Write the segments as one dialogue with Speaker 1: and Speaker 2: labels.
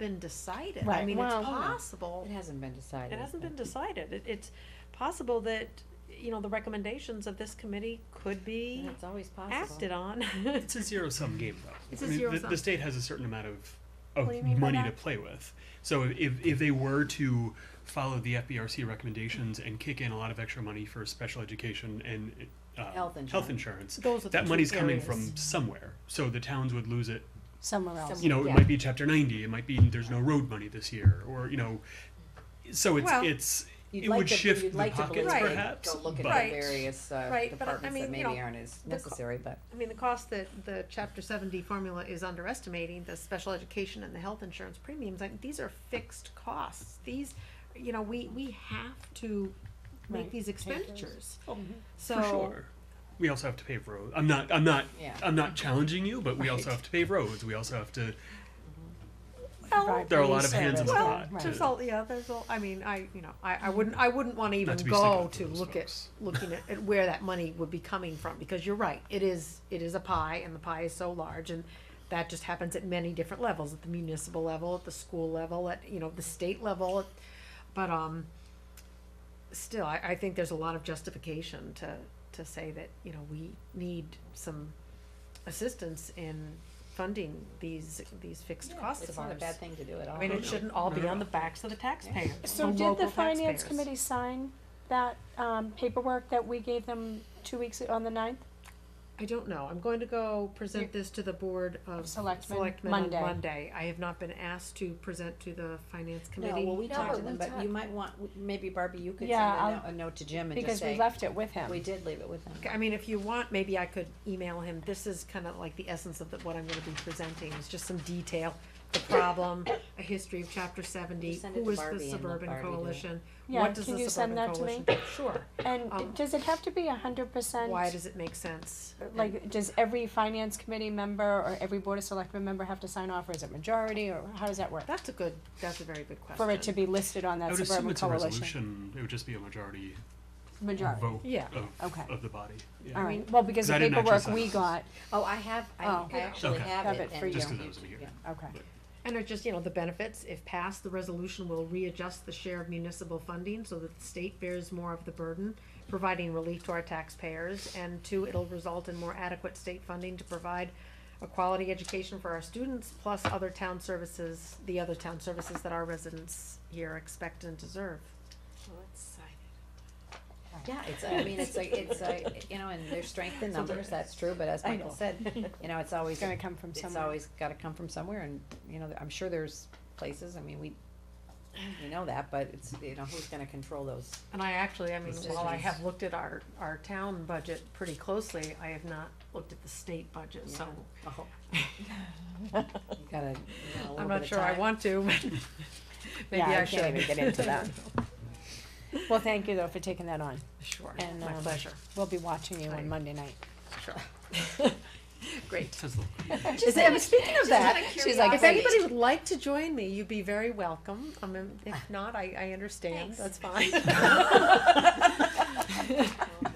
Speaker 1: been decided. I
Speaker 2: Right,
Speaker 1: mean, it's
Speaker 3: well-
Speaker 1: possible.
Speaker 2: It hasn't been decided.
Speaker 3: It hasn't been
Speaker 2: but-
Speaker 3: decided. It, it's possible that, you know, the recommendations of this committee could
Speaker 2: and
Speaker 3: be
Speaker 2: It's always possible.
Speaker 3: acted on.
Speaker 4: It's a zero sum game, though.
Speaker 1: It's a
Speaker 4: I mean,
Speaker 1: zero
Speaker 4: the,
Speaker 1: sum.
Speaker 4: the state has a certain amount of
Speaker 3: What do you
Speaker 4: of
Speaker 3: mean by
Speaker 4: money
Speaker 3: that?
Speaker 4: to play with. So if if they were to follow the FBRC recommendations and kick in a lot of extra money for special education and uh,
Speaker 2: Health
Speaker 4: health
Speaker 2: insurance.
Speaker 4: insurance,
Speaker 1: Those are the
Speaker 4: that
Speaker 1: two
Speaker 4: money's coming
Speaker 1: areas.
Speaker 4: from somewhere. So the towns would lose it.
Speaker 5: somewhere else.
Speaker 2: Some-
Speaker 4: You know,
Speaker 2: Yeah.
Speaker 4: it might be Chapter 90. It might be there's no road money this year, or you know, so it's
Speaker 1: Well,
Speaker 4: it's
Speaker 2: You'd
Speaker 4: it
Speaker 2: like
Speaker 4: would
Speaker 2: to-
Speaker 4: shift
Speaker 2: you'd
Speaker 4: the
Speaker 2: like to
Speaker 4: pockets
Speaker 2: believe they'd
Speaker 4: perhaps,
Speaker 2: Go look at
Speaker 1: but-
Speaker 2: the various, uh,
Speaker 3: Right, but I- I
Speaker 2: departments that
Speaker 3: mean, you
Speaker 2: maybe
Speaker 3: know,
Speaker 2: aren't as
Speaker 3: the co-
Speaker 2: necessary, but.
Speaker 3: I mean, the cost that the chapter seventy formula is underestimating, the special education and the health insurance premiums, like, these are fixed costs. These, you know, we, we have to make
Speaker 5: Right,
Speaker 3: these
Speaker 5: those.
Speaker 3: expenditures, so.
Speaker 4: For sure. We also have to pave roads. I'm not. I'm not.
Speaker 2: Yeah.
Speaker 4: I'm not challenging you, but we also
Speaker 2: Right.
Speaker 4: have to pave roads. We also have to.
Speaker 3: Well,
Speaker 4: There are a lot of hands in the
Speaker 5: Right.
Speaker 3: well,
Speaker 4: pot.
Speaker 5: Right.
Speaker 3: there's all, yeah, there's all, I mean, I, you know, I, I wouldn't, I wouldn't wanna even
Speaker 4: Mm. to be sticking
Speaker 3: go
Speaker 4: up for
Speaker 3: to
Speaker 4: those
Speaker 3: look at,
Speaker 4: folks.
Speaker 3: looking at, at where that money would be coming from, because you're right, it is, it is a pie, and the pie is so large, and that just happens at many different levels, at the municipal level, at the school level, at, you know, the state level, at- but, um, still, I, I think there's a lot of justification to, to say that, you know, we need some assistance in funding these, these fixed costs
Speaker 2: It's
Speaker 3: of
Speaker 2: not a
Speaker 3: ours.
Speaker 2: bad thing to do at all.
Speaker 3: I mean, it shouldn't all be on the backs of the taxpayers.
Speaker 5: So
Speaker 3: the
Speaker 5: did
Speaker 3: local
Speaker 5: the finance
Speaker 3: taxpayers.
Speaker 5: committee sign that, um, paperwork that we gave them two weeks, on the ninth?
Speaker 3: I don't know. I'm going to go present this to the board of
Speaker 5: Selectmen,
Speaker 3: selectmen on
Speaker 5: Monday.
Speaker 3: Monday. I have not been asked to present to the finance
Speaker 2: No,
Speaker 3: committee.
Speaker 2: well, we
Speaker 1: No,
Speaker 2: talked to them,
Speaker 1: we
Speaker 2: but
Speaker 1: talked.
Speaker 2: you might want, maybe Barbie, you could
Speaker 5: Yeah,
Speaker 2: send a
Speaker 5: I'll-
Speaker 2: note, a note to Jim and just
Speaker 5: Because we
Speaker 2: say,
Speaker 5: left it with him.
Speaker 2: we did leave it with him.
Speaker 3: Okay, I mean, if you want, maybe I could email him. This is kind of like the essence of the, what I'm gonna be presenting, is just some detail. The problem, a history of chapter
Speaker 2: You
Speaker 3: seventy,
Speaker 2: send it
Speaker 3: who
Speaker 2: to
Speaker 3: is
Speaker 2: Barbie
Speaker 3: the
Speaker 2: and let
Speaker 3: suburban
Speaker 2: Barbie do it.
Speaker 3: coalition?
Speaker 5: Yeah,
Speaker 3: What does
Speaker 5: can
Speaker 3: the
Speaker 5: you send
Speaker 3: suburban
Speaker 5: that to me?
Speaker 3: coalition? Sure. um,
Speaker 5: And does it have to be a hundred percent?
Speaker 3: Why does it make sense?
Speaker 5: Like, does every finance committee member or every board of selectmen member have to sign off, or is it majority, or how does that work?
Speaker 3: That's a good, that's a very good question.
Speaker 5: For it to be listed on
Speaker 4: I
Speaker 5: that
Speaker 4: would assume
Speaker 5: suburban
Speaker 4: it's a
Speaker 5: coalition?
Speaker 4: resolution. It would just be a majority
Speaker 5: Majority,
Speaker 4: vote
Speaker 3: Yeah.
Speaker 4: of,
Speaker 5: Okay.
Speaker 4: of the body. Yeah.
Speaker 5: all right, well, because
Speaker 4: I
Speaker 5: the
Speaker 4: didn't actually
Speaker 5: paperwork
Speaker 4: sign
Speaker 5: we
Speaker 4: it.
Speaker 5: got,
Speaker 2: Oh, I have, I,
Speaker 5: Oh.
Speaker 2: I actually
Speaker 4: Okay.
Speaker 2: have
Speaker 5: Have
Speaker 2: it
Speaker 5: it for
Speaker 2: and.
Speaker 5: you.
Speaker 4: Just 'cause that was in here.
Speaker 2: Yeah.
Speaker 5: okay,
Speaker 3: And it's just, you know, the benefits, if passed, the resolution will readjust the share of municipal funding so that the state bears more of the burden, providing relief to our taxpayers, and two, it'll result in more adequate state funding to provide a quality education for our students, plus other town services, the other town services that our residents here expect and deserve.
Speaker 2: Yeah, it's, I mean, it's like, it's, like, you know, and they're strength in numbers, that's true, but as Michael said, you know, it's always.
Speaker 5: it's gonna come from
Speaker 2: It's
Speaker 5: somewhere.
Speaker 2: always gotta come from somewhere and, you know, I'm sure there's places, I mean, we, we know that, but it's, you know, who's gonna control those?
Speaker 3: And I actually, I mean, while I
Speaker 2: Decisions.
Speaker 3: have looked at our, our town budget pretty closely, I have not looked at the state budget, so
Speaker 2: Yeah. Oh. You gotta, you know, a little
Speaker 3: I'm
Speaker 2: bit
Speaker 3: not
Speaker 2: of
Speaker 3: sure I
Speaker 2: time.
Speaker 3: want to, but maybe
Speaker 5: Yeah,
Speaker 3: I
Speaker 5: I
Speaker 3: should.
Speaker 5: can't even get into that. Well, thank you though for taking that on,
Speaker 3: Sure,
Speaker 5: And,
Speaker 3: my
Speaker 5: um,
Speaker 3: pleasure.
Speaker 5: we'll be watching you
Speaker 3: I-
Speaker 5: on Monday night.
Speaker 3: Sure. Great.
Speaker 4: That's the-
Speaker 3: Is it- speaking of that,
Speaker 5: She's like,
Speaker 3: if
Speaker 5: wait.
Speaker 3: anybody would like to join me, you'd be very welcome. I mean,
Speaker 4: Ah.
Speaker 3: if not, I, I understand. That's fine. you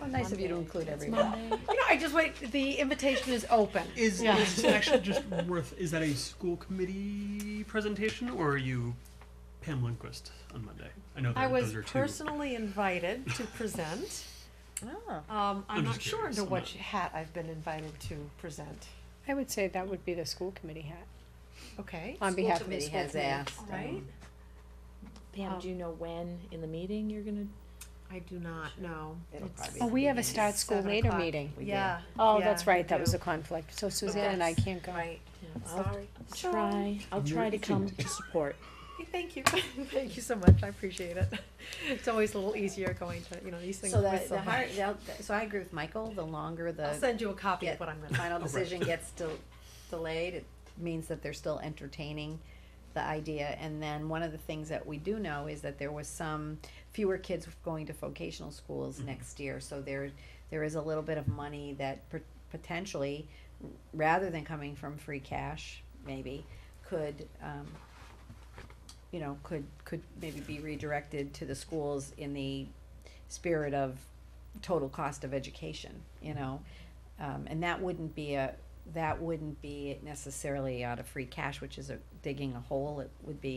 Speaker 2: Well, Nice of you to include everyone.
Speaker 3: know, I just wait. The invitation is open.
Speaker 4: Is,
Speaker 3: Yeah.
Speaker 4: is it actually just worth? Is that a school committee presentation, or are you Pam Lindquist on Monday? I know that
Speaker 3: I was
Speaker 4: those are two.
Speaker 3: personally invited to present.
Speaker 2: oh.
Speaker 3: Um, I'm,
Speaker 4: I'm
Speaker 3: not
Speaker 4: just
Speaker 3: sure
Speaker 4: curious.
Speaker 3: under
Speaker 4: I'm
Speaker 3: what
Speaker 4: not-
Speaker 3: hat I've been invited to present.
Speaker 5: I would say that would be the school committee hat,
Speaker 3: Okay.
Speaker 5: on behalf of the
Speaker 2: Committee
Speaker 5: school
Speaker 2: has
Speaker 5: committee.
Speaker 2: asked.
Speaker 3: All
Speaker 2: um,
Speaker 3: right.
Speaker 6: Pam, do you know when in the meeting you're gonna?
Speaker 3: I do not know.
Speaker 2: It'll
Speaker 3: It's-
Speaker 2: probably
Speaker 5: Oh, we have a start
Speaker 3: It's
Speaker 5: school
Speaker 3: seven
Speaker 5: later
Speaker 3: o'clock.
Speaker 5: meeting.
Speaker 2: We do.
Speaker 3: Yeah.
Speaker 5: Oh,
Speaker 3: yeah,
Speaker 5: that's right, that was
Speaker 3: do.
Speaker 5: the conflict, so Suzanne and I
Speaker 3: Yes.
Speaker 5: can't go.
Speaker 3: Right.
Speaker 6: I'll
Speaker 3: Sorry.
Speaker 6: try, I'll try to come to support.
Speaker 3: Hey, Thank you. Thank you so much. I appreciate it. It's always a little easier going to, you know, these things
Speaker 2: So the,
Speaker 3: with
Speaker 2: the
Speaker 3: someone.
Speaker 2: hard, they'll- so I agree with Michael, the longer
Speaker 3: I'll
Speaker 2: the
Speaker 3: send you a copy of
Speaker 2: get-
Speaker 3: what I'm gonna.
Speaker 2: final
Speaker 4: right.
Speaker 2: decision gets del- delayed, it means that they're still entertaining the idea. And then one of the things that we do know is that there was some fewer kids going to vocational schools next year. So there, there is a little bit of money that pot- potentially, rather than coming from free cash, maybe, could, um, you know, could, could maybe be redirected to the schools in the spirit of total cost of education, you know? Um, and that wouldn't be a, that wouldn't be necessarily out of free cash, which is a, digging a hole, it would be